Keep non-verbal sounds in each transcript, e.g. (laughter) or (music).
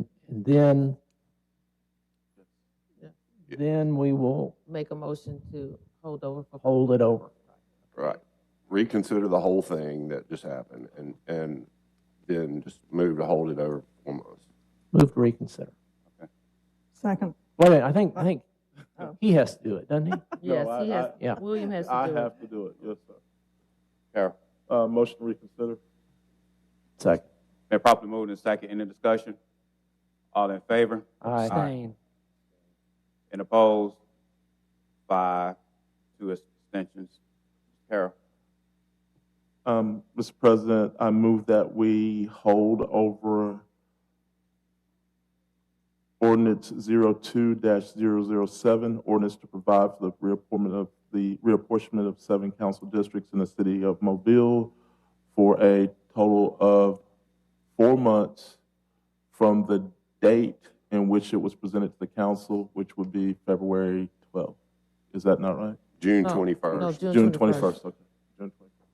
And then, Yeah. then we will make a motion to hold over for. hold it over. Right. Reconsider the whole thing that just happened and, and then just move to hold it over almost. Move to reconsider. Second. Wait a minute, I think, I think Oh. he has to do it, doesn't he? Yes, No, he I- has, I- Yeah. William has I to do it. have to do it, yes, sir. Carol. Uh, motion to reconsider. Second. Been properly moved and second. Any discussion? All in favor? Abstain. And opposed? Five, two abstentions. Carol. Um, Mr. President, I move that we hold over ordinance zero-two dash zero-zero-seven, ordinance to provide for the reapportment of, the reapportionment of seven council districts in the city of Mobile for a total of four months from the date in which it was presented to the council, which would be February twelfth. Is that not right? June Oh, No, No, twenty-first. June June twenty-first. twenty-first, okay. June twenty-first.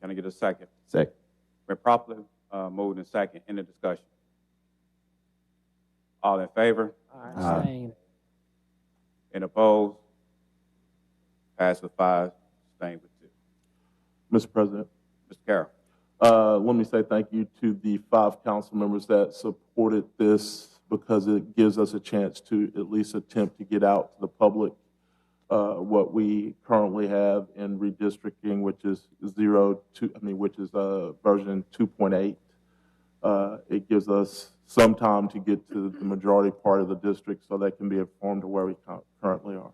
Can I get a second? Second. Been properly uh, moved and second. Any discussion? All in favor? Abstain. And opposed? Pass with five, abstain with two. Mr. President, Mr. Carroll. uh, let me say thank you to the five council members that supported this because it gives us a chance to at least attempt to get out to the public uh, what we currently have in redistricting, which is zero two, I mean, which is uh, version 2.8. Uh, It gives us some time to get to the majority part of the district so they can be informed of where we cu- currently are.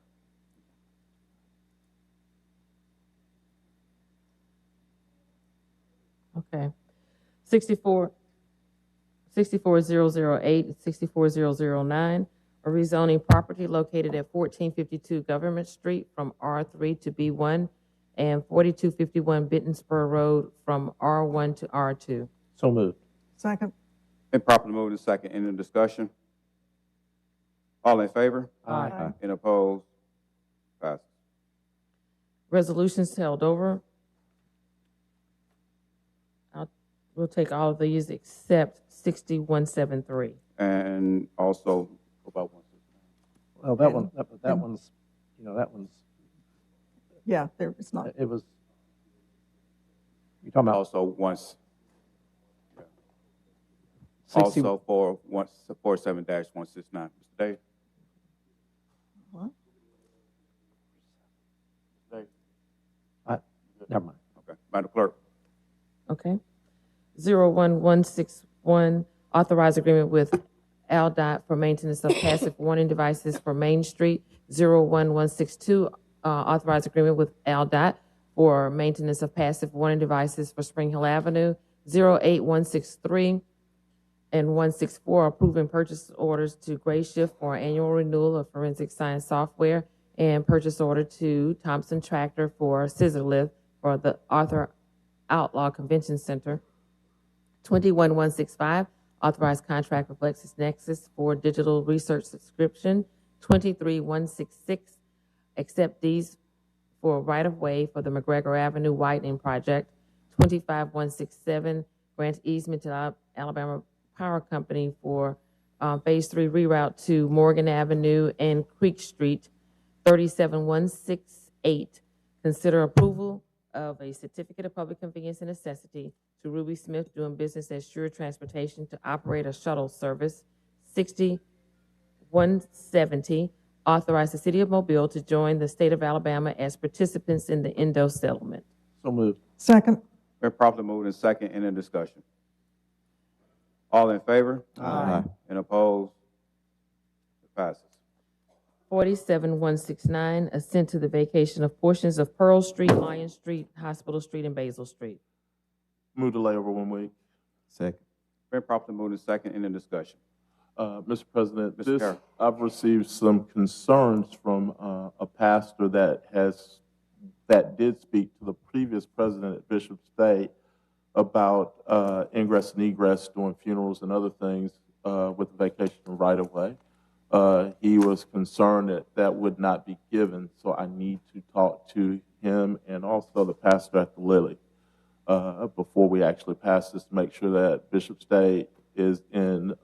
Okay. Sixty-four, sixty-four zero zero eight, sixty-four zero zero nine, a rezoning property located at fourteen fifty-two Government Street from R three to B one and forty-two fifty-one Bitten Spur Road from R one to R two. So moved. Second. Been properly moved and second. Any discussion? All in favor? Aye. And opposed? Passes. Resolutions held over. I'll, we'll take all of these except sixty-one seven three. And also, go about one. Well, that one, that that one's, you know, that one's, Yeah, there, it's not. it was, you're talking about Also once, 60, also for one, four seven dash one six nine. Mr. Davis? What? never mind. Okay, Madam Clerk. Okay. 01161, authorized agreement with AlDOT for maintenance of passive (coughs) warning devices for Main Street. 01162, uh, authorized agreement with AlDOT for maintenance of passive warning devices for Spring Hill Avenue. 08163 and 164, approving purchase orders to Gray Shift for annual renewal of forensic science software and purchase order to Thompson Tractor for scissor lift for the Arthur Outlaw Convention Center. 21165, authorized contract with LexisNexis for digital research subscription. 23166, accept these for right-of-way for the McGregor Avenue widening project. 25167, grant easement to Al- Alabama Power Company for uh, Phase 3 reroute to Morgan Avenue and Creek Street. 37168, consider approval of a certificate of public convenience and necessity to Ruby Smith doing business as Sure Transportation to operate a shuttle service. 6170, authorize the city of Mobile to join the state of Alabama as participants in the Indo settlement. So moved. Second. Been properly moved and second, any discussion? All in favor? Aye. And opposed? It passes. 47169, assent to the vacation of portions of Pearl Street, Lion Street, Hospital Street, and Basil Street. Move to lay over one week. Second. Been properly moved and second, any discussion? Uh, Mr. President, Mr. this, Carroll. I've received some concerns from uh, a pastor that has, that did speak to the previous president at Bishop State about uh, ingress and egress during funerals and other things uh, with vacation right of way. Uh, He was concerned that that would not be given, so I need to talk to him and also the pastor at the Lily uh, before we actually pass this, to make sure that Bishop State is in